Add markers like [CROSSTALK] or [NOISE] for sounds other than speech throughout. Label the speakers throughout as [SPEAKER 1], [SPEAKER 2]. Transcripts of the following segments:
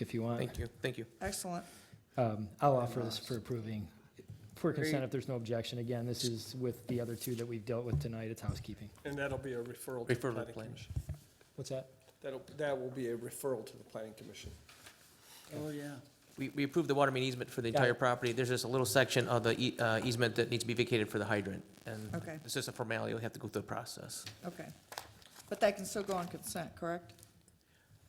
[SPEAKER 1] if you want.
[SPEAKER 2] Thank you, thank you.
[SPEAKER 3] Excellent.
[SPEAKER 1] Um, I'll offer this for approving, for consent
[SPEAKER 3] Great.
[SPEAKER 1] if there's no objection. Again, this is with the other two that we've dealt with tonight, it's housekeeping.
[SPEAKER 4] And that'll be a referral to the
[SPEAKER 2] Referral to
[SPEAKER 4] planning
[SPEAKER 2] plan.
[SPEAKER 4] commission.
[SPEAKER 1] What's that?
[SPEAKER 4] That'll, that will be a referral to the planning commission.
[SPEAKER 3] Oh, yeah.
[SPEAKER 2] We, we approved the water main easement for the
[SPEAKER 1] Got it.
[SPEAKER 2] entire property. There's just a little section of the ea- uh, easement that needs to be vacated for the hydrant. And
[SPEAKER 3] Okay.
[SPEAKER 2] it's just a formality, we have to go through the process.
[SPEAKER 3] Okay. But that can still go on consent, correct?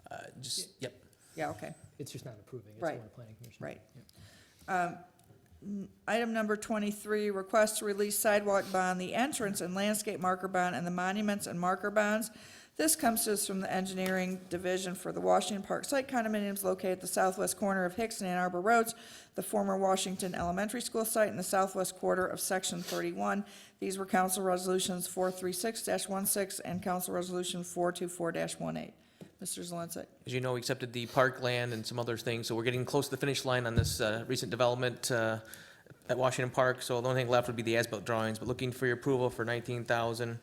[SPEAKER 2] Uh, Just, yep.
[SPEAKER 3] Yeah, okay.
[SPEAKER 1] It's just not approving, it's
[SPEAKER 3] Right.
[SPEAKER 1] going to planning commission.
[SPEAKER 3] Right.
[SPEAKER 1] Yeah.
[SPEAKER 3] Um, n- Item number 23, request to release sidewalk bond, the entrance and landscape marker bond, and the monuments and marker bonds. This comes to us from the engineering division for the Washington Park Site condominiums located at the southwest corner of Hicks and Ann Arbor Roads, the former Washington Elementary School site in the southwest quarter of Section 31. These were Council Resolutions 436-16 and Council Resolution 424-18. Mr. Zalinsik.
[SPEAKER 2] As you know, we accepted the park land and some other things, so we're getting close to the finish line on this uh, recent development uh, at Washington Park, so the only thing left would be the as-built drawings, but looking for your approval for nineteen thousand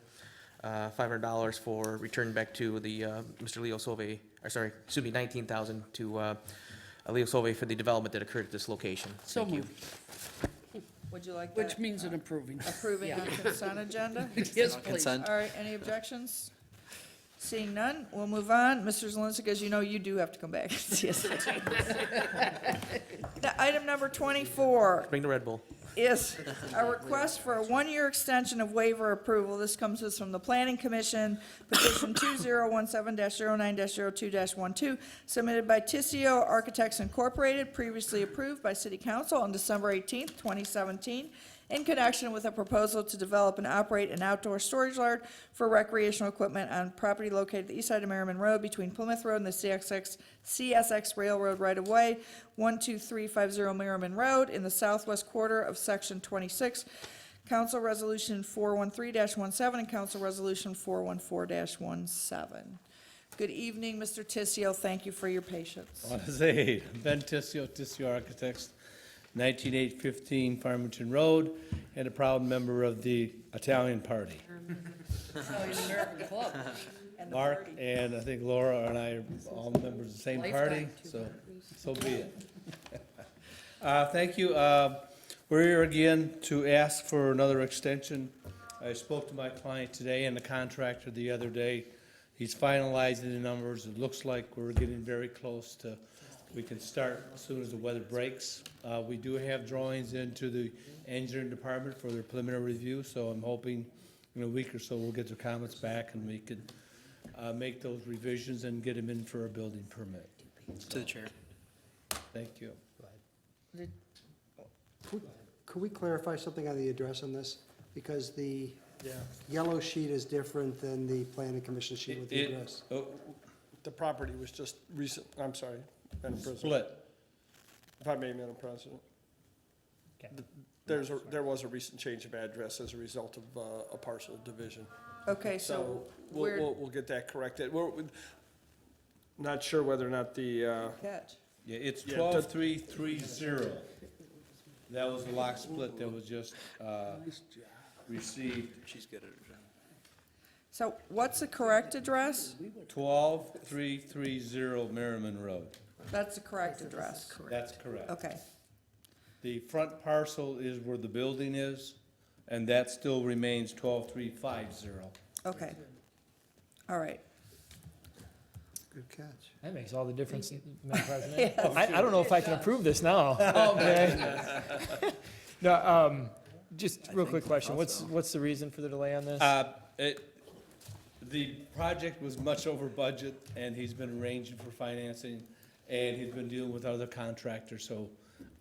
[SPEAKER 2] uh, five hundred dollars for return back to the, uh, Mr. Leo Solvay, or sorry, excuse me, nineteen thousand to uh, Leo Solvay for the development that occurred at this location.
[SPEAKER 5] So
[SPEAKER 2] Thank you.
[SPEAKER 5] moved,
[SPEAKER 3] Would you like
[SPEAKER 5] which
[SPEAKER 3] that uh,
[SPEAKER 5] means an approving.
[SPEAKER 3] approving on consent agenda?
[SPEAKER 5] [LAUGHS] Yes, please.
[SPEAKER 6] Consent.
[SPEAKER 3] All right, any objections? Seeing none, we'll move on. Mr. Zalinsik, as you know, you do have to come
[SPEAKER 5] [LAUGHS]
[SPEAKER 3] back and see us. Now, Item number 24
[SPEAKER 2] Bring the Red Bull.
[SPEAKER 3] is a request for a one-year extension of waiver approval. This comes to us from the Planning Commission, petition 2017-09-02-12, submitted by Tissio Architects Incorporated, previously approved by City Council on December 18, 2017, in connection with a proposal to develop and operate an outdoor storage yard for recreational equipment on property located at the east side of Merriman Road between Plymouth Road and the CSX, CSX Railroad right-of-way, 12350 Merriman Road in the southwest quarter of Section 26, Council Resolution 413-17 and Council Resolution 414-17. Good evening, Mr. Tissio. Thank you for your patience.
[SPEAKER 7] Want to say, [LAUGHS] Ben Tissio, Tissio Architects, 19815 Farmington Road, and a proud member of the Italian Party.
[SPEAKER 5] Oh, you're an American club.
[SPEAKER 3] And the
[SPEAKER 7] Mark
[SPEAKER 3] party.
[SPEAKER 7] and I think Laura and I are all members of the same party,
[SPEAKER 5] Lifetime,
[SPEAKER 7] so, so be it. [LAUGHS] Uh, thank you. Uh, we're here again to ask for another extension. I spoke to my client today and the contractor the other day. He's finalizing the numbers. It looks like we're getting very close to, we can start as soon as the weather breaks. Uh, we do have drawings into the engineering department for their preliminary review, so I'm hoping in a week or so we'll get their comments back and we could uh, make those revisions and get them in for a building permit.
[SPEAKER 6] To the chair.
[SPEAKER 7] Thank you.
[SPEAKER 8] Could could we clarify something on the address on this? Because the yellow sheet is different than the planning commission sheet with the
[SPEAKER 7] It-
[SPEAKER 8] address.
[SPEAKER 7] oh,
[SPEAKER 4] The property was just recent, I'm sorry, Madam President,
[SPEAKER 7] Split.
[SPEAKER 4] if I may, Madam President.
[SPEAKER 1] Okay.
[SPEAKER 4] Th- There's, a- there was a recent change of address as a result of uh, a parcel division.
[SPEAKER 3] Okay, so
[SPEAKER 4] So we'll,
[SPEAKER 3] we're,
[SPEAKER 4] we'll, we'll get that corrected. We're, we're not sure whether or not the, uh,
[SPEAKER 3] catch.
[SPEAKER 7] Yeah, it's
[SPEAKER 4] Yeah,
[SPEAKER 7] twelve three three zero. That was the lock split that was just, uh, received,
[SPEAKER 6] She's good at her job.
[SPEAKER 3] So what's the correct address?
[SPEAKER 7] twelve three three zero Merriman Road.
[SPEAKER 3] That's the correct address.
[SPEAKER 7] That's correct.
[SPEAKER 3] Okay,
[SPEAKER 7] The front parcel is where the building is, and that still remains twelve three five zero.
[SPEAKER 3] okay. All right.
[SPEAKER 8] Good catch.
[SPEAKER 1] That makes all the difference, Madam
[SPEAKER 3] [LAUGHS]
[SPEAKER 1] President. I, I don't know if I can approve this now.
[SPEAKER 3] Oh,
[SPEAKER 1] Okay. No, um, just real quick question, what's, what's the reason for the delay on this?
[SPEAKER 7] Uh, it, the project was much over budget, and he's been arranging for financing, and he's been dealing with other contractors, so,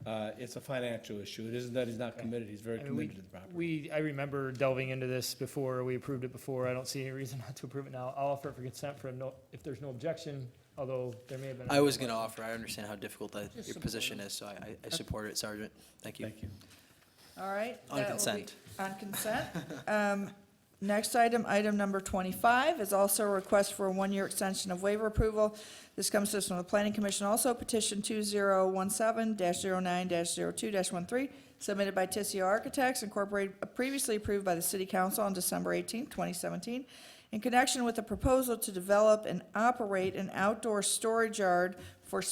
[SPEAKER 7] uh, it's a financial issue. It isn't that he's not committed, he's very
[SPEAKER 1] I mean, we-
[SPEAKER 7] committed to the property.
[SPEAKER 1] We, I remember delving into this before, we approved it before, I don't see any reason [LAUGHS] not to approve it now. I'll offer it for consent for no, if there's no objection, although there may have been.
[SPEAKER 6] I was going to offer, I understand how difficult that,
[SPEAKER 5] Just
[SPEAKER 6] your
[SPEAKER 5] support
[SPEAKER 6] position is, so I, I- I support it, Sergeant. Thank you.
[SPEAKER 7] Thank you.
[SPEAKER 3] All right.
[SPEAKER 6] On
[SPEAKER 3] that will
[SPEAKER 6] consent.
[SPEAKER 3] be- On consent. Um, Next item, item number 25, is also a request for a one-year extension of waiver approval. This comes to us from the Planning Commission also, petition 2017-09-02-13, submitted by Tissio Architects Incorporated, uh, previously approved by the City Council on December 18, 2017, in connection with a proposal to develop and operate an outdoor storage yard